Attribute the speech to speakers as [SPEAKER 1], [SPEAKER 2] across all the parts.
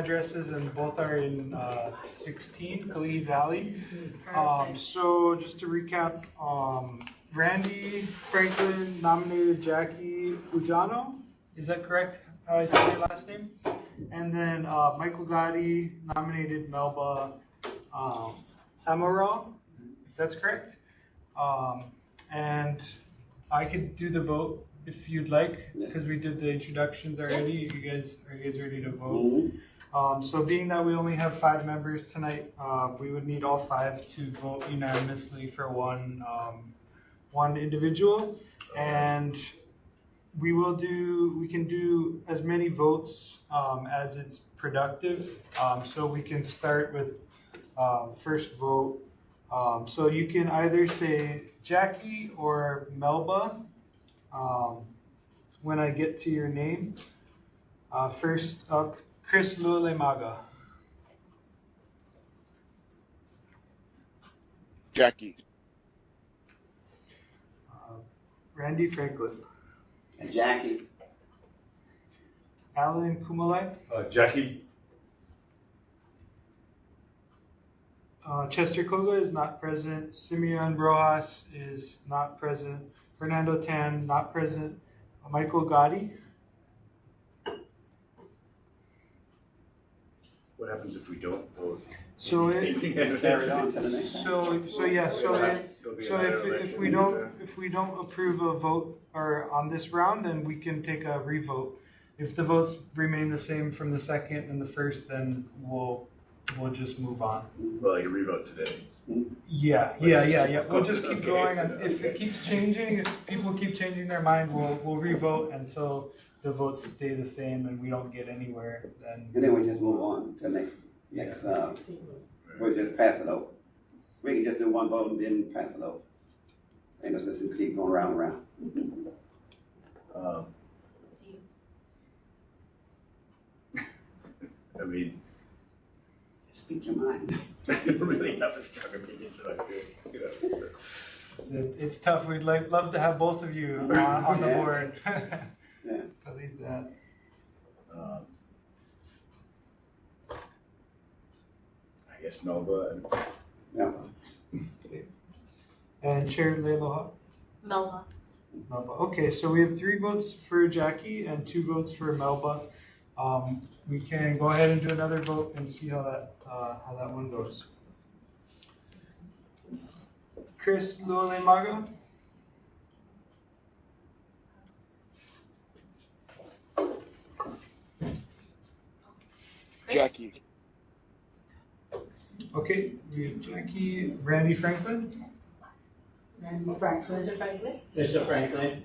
[SPEAKER 1] addresses and both are in uh, 16 Kali Valley. Um, So just to recap, um, Randy Franklin nominated Jackie Fujano, is that correct, how I say your last name? And then uh, Michael Gotti nominated Melba um, Amaral, if that's correct. Um, And I could do the vote if you'd like, because we did the introductions already. You guys, are you guys ready to vote? Um, so being that we only have five members tonight, uh, we would need all five to vote unanimously for one, um, one individual. And we will do, we can do as many votes, um, as it's productive. Um, so we can start with, um, first vote. Um, so you can either say Jackie or Melba, um, when I get to your name. Uh, first up, Chris Lulemaga.
[SPEAKER 2] Jackie.
[SPEAKER 1] Uh, Randy Franklin,
[SPEAKER 3] And Jackie.
[SPEAKER 1] Alan Kumalai,
[SPEAKER 4] Uh, Jackie.
[SPEAKER 1] uh, Chester Koga is not present, Simeon Rojas is not present, Fernando Tan not present, Michael Gotti,
[SPEAKER 4] What happens if we don't vote?
[SPEAKER 1] so it,
[SPEAKER 3] Carry on to the next
[SPEAKER 1] so,
[SPEAKER 3] one.
[SPEAKER 1] so yeah, so it,
[SPEAKER 4] It'll be
[SPEAKER 1] So
[SPEAKER 4] another
[SPEAKER 1] if, if
[SPEAKER 4] election.
[SPEAKER 1] we don't, if we don't approve a vote or on this round, then we can take a revote. If the votes remain the same from the second and the first, then we'll, we'll just move on.
[SPEAKER 4] Well, you revote today.
[SPEAKER 1] Yeah,
[SPEAKER 4] We'll
[SPEAKER 1] yeah,
[SPEAKER 4] just
[SPEAKER 1] yeah,
[SPEAKER 4] keep
[SPEAKER 1] yeah. We'll just keep
[SPEAKER 4] Okay,
[SPEAKER 1] going. and If it
[SPEAKER 4] okay.
[SPEAKER 1] keeps changing, if people keep changing their mind, we'll, we'll revote until the votes stay the same and we don't get anywhere,
[SPEAKER 3] And
[SPEAKER 1] then.
[SPEAKER 3] then we just move on to next, next, uh, we'll just pass it over. We can just do one vote and then pass it over. Ain't no sense in keep going round and round.
[SPEAKER 4] Um, I mean,
[SPEAKER 3] Just Speak your mind.
[SPEAKER 4] I really have a strong opinion, so I feel- yeah, so-
[SPEAKER 1] It- It's tough. We'd like, love to have both of you on, on the
[SPEAKER 3] Yes.
[SPEAKER 1] board.
[SPEAKER 3] Yes.
[SPEAKER 1] Believe that.
[SPEAKER 4] Um, I guess Melba and
[SPEAKER 3] Yeah.
[SPEAKER 1] And Chair Leiloha?
[SPEAKER 5] Melba.
[SPEAKER 1] Melba. Okay, so we have three votes for Jackie and two votes for Melba. Um, we can go ahead and do another vote and see how that, uh, how that one goes. Chris Lulemaga,
[SPEAKER 5] Chris?
[SPEAKER 2] Jackie.
[SPEAKER 1] okay, we have Jackie, Randy Franklin,
[SPEAKER 6] Randy Franklin.
[SPEAKER 5] Mr. Franklin.
[SPEAKER 3] Mr. Franklin.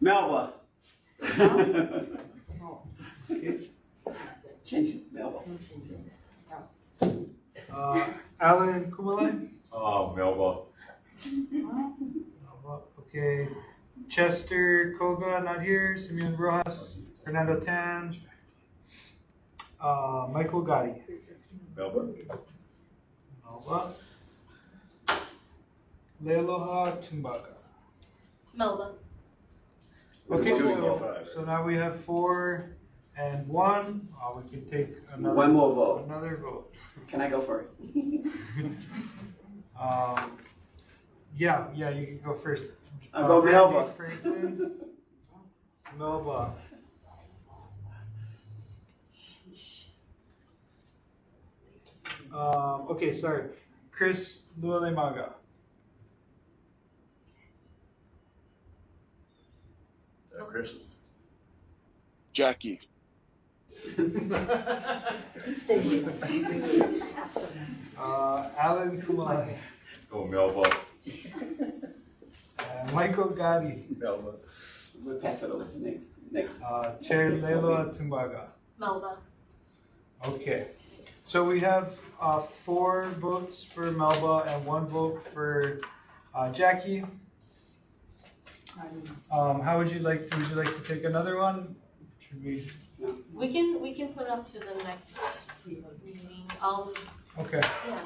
[SPEAKER 3] Melba. Change it, Melba.
[SPEAKER 1] uh, Alan Kumale,
[SPEAKER 4] oh, Melba.
[SPEAKER 1] Melba, okay, Chester Koga, not here, Simeon Rojas, Fernando Tan, uh, Michael Gotti.
[SPEAKER 4] Melba.
[SPEAKER 1] Melba. Leloha Tumbaga.
[SPEAKER 5] Melba.
[SPEAKER 1] Okay,
[SPEAKER 4] Two
[SPEAKER 3] One
[SPEAKER 4] and
[SPEAKER 3] more
[SPEAKER 4] your
[SPEAKER 3] vote.
[SPEAKER 4] five.
[SPEAKER 1] So now we have four and one. Uh, we can take another
[SPEAKER 3] One more vote.
[SPEAKER 1] another vote.
[SPEAKER 3] Can I go first?
[SPEAKER 1] Um, yeah, yeah, you can go first.
[SPEAKER 3] I'll go
[SPEAKER 1] Randy
[SPEAKER 3] Melba.
[SPEAKER 1] Franklin. Melba. Um, okay, sorry. Chris Lualemaga.
[SPEAKER 4] Uh, Chris.
[SPEAKER 2] Jackie.
[SPEAKER 1] Uh, Alan Kumai.
[SPEAKER 4] Oh, Melba.
[SPEAKER 1] Uh, Michael Gotti,
[SPEAKER 4] Melba.
[SPEAKER 3] We'll pass it over to next, next.
[SPEAKER 1] uh, Chair Leila Tumbaga.
[SPEAKER 5] Melba.
[SPEAKER 1] Okay, so we have uh, four votes for Melba and one vote for uh, Jackie. Um, how would you like? To, would you like to take another one? Should we?
[SPEAKER 5] We can we can put it up to the next meeting. I'll
[SPEAKER 1] Okay.
[SPEAKER 5] yeah.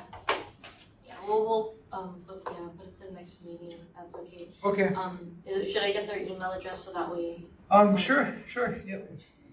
[SPEAKER 5] Yeah, we'll we'll um but yeah, put it to the next meeting if that's okay.
[SPEAKER 1] Okay.
[SPEAKER 5] Um is it should I get their email address so that way
[SPEAKER 1] Um. Sure. Sure. Yep.